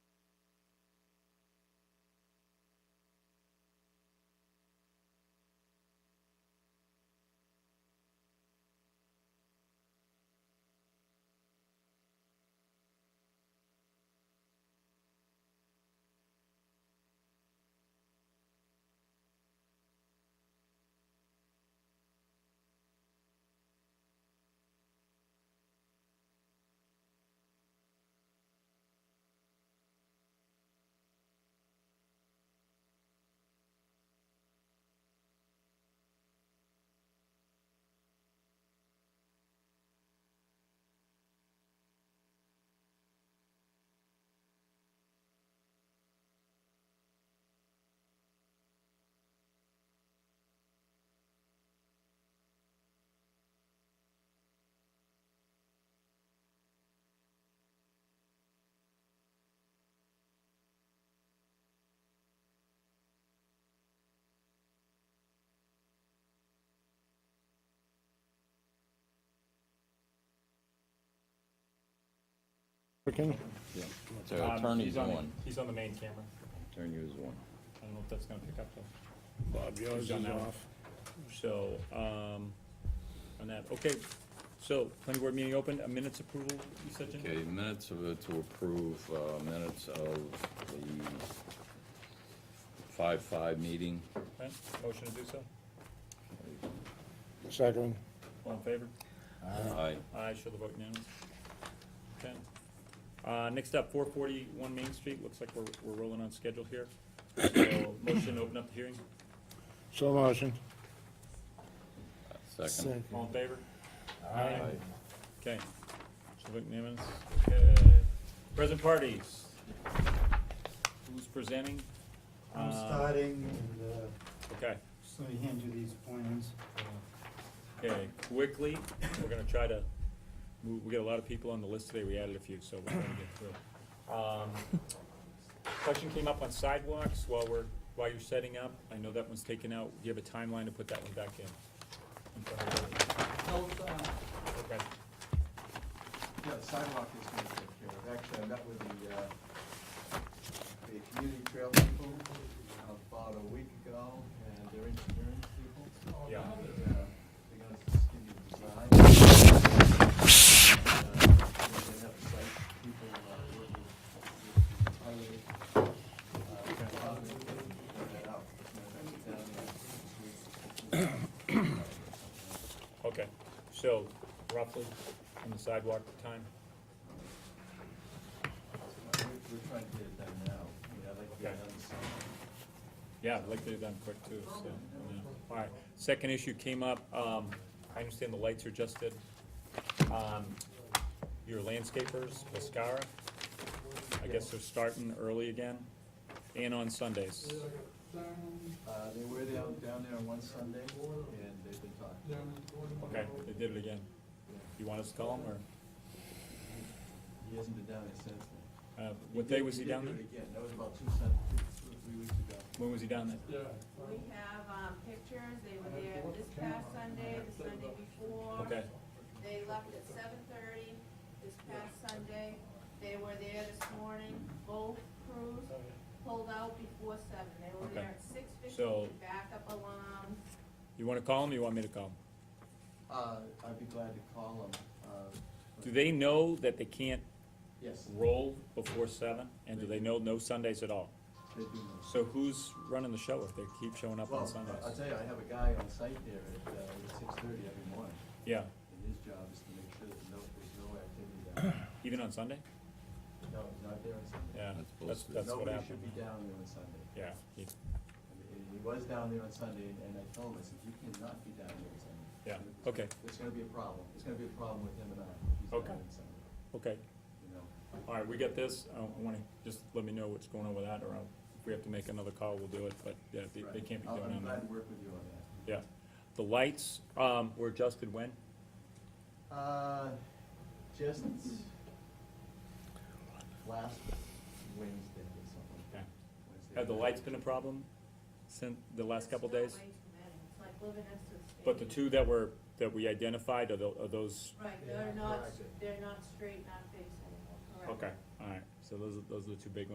applicant? Yeah, so Um, attorney's he's on the- one, He's on the main camera. attorney is one. I don't know if that's gonna pick up though. Bob, yours Done is now. off. So, um, on that, okay, so, planning board meeting open, a minutes approval, you said, Jim? Okay, minutes of, the- to approve, uh, minutes of the five-five meeting. Okay, Motion to do so, Second, all in favor? Aye, Aye, show the vote unanimous. Okay. Uh, next up, four forty-one Main Street, looks like we're, we're rolling on schedule here. So, motion to open up the hearing, so motion. second. all in favor? Aye. Okay. So vote unanimous. Okay. Present parties. Who's presenting? I'm Uh, starting, and uh, Okay. just let me hand you these plans. Okay, quickly, we're gonna try to, we, we got a lot of people on the list today, we added a few, so we're gonna get through. Um, Question came up on sidewalks while we're, while you're setting up, I know that one's taken out, do you have a timeline to put that one back in? Health, uh, Okay, yeah, the sidewalk is gonna take care of, actually, I met with the, uh, the community trail people about a week ago, and they're engineering people. Yeah. And, uh, They're gonna just give you the design. And, uh, They have site people, uh, working with highway, uh, department, and that out. And that's down there. okay, so roughly on the sidewalk time, We're we're trying to get it done now, I mean, I'd like to get it done this summer. yeah, I'd like to have done quick too, so. yeah. Alright, second issue came up, um, I understand the lights are adjusted, um, your landscapers, Mascara, I guess they're starting early again, and on Sundays. Uh, they were down, down there on one Sunday, and they've been talking. Okay, they did it again. You want us to call him, or, He hasn't been down there since then. uh, what day did- was he down there? did do it Again, that was about two Sun, two, three weeks ago. When was he down there? We have, um, pictures, they were there this past Sunday, the Sunday before. Okay, They left at seven thirty this past Sunday, they were there this morning, both crews pulled out before seven, they were Oh, Okay. there at six So- fifteen, backup alarms. you wanna call him, or you want me to call him? Uh, I'd be glad to call him, uh, Do they know that they can't yes, roll before seven, and do they know no Sundays at all? they do know. So who's running the show if they keep showing up on Well, Sundays? I'll tell you, I have a guy on site there at, uh, six thirty every morning, Yeah, and his job is to make sure that no, there's no activity down there. even on Sunday? No, he's not there on Sunday. Yeah, That's that's, supposed to be- that's what Nobody should happened. be down there on Sunday. Yeah, he- And He was down there on Sunday, and I told him, I said, you cannot be down there on Sunday. yeah, okay, There's gonna be a problem, there's gonna be a problem with him and I, if he's Okay. down on Sunday, okay. you know? All right, we get this. I I wanna, just let me know what's going on with that, or I'll- if we have to make another call, we'll do it, but, yeah, they, they Right. can't be I'll- doing that. I'm glad to work with you on that. Yeah. The lights, um, were adjusted when? Uh, just last Wednesday or something. Okay. Wednesday Have the night. lights been a problem since the last couple There's days? still way too many. It's like living next to the station. But the two that were, that we identified, are tho- are those, Right, Yeah, they're not, correct. they're not straight, not facing, correct. okay, all right, so those are, those are the two big ones.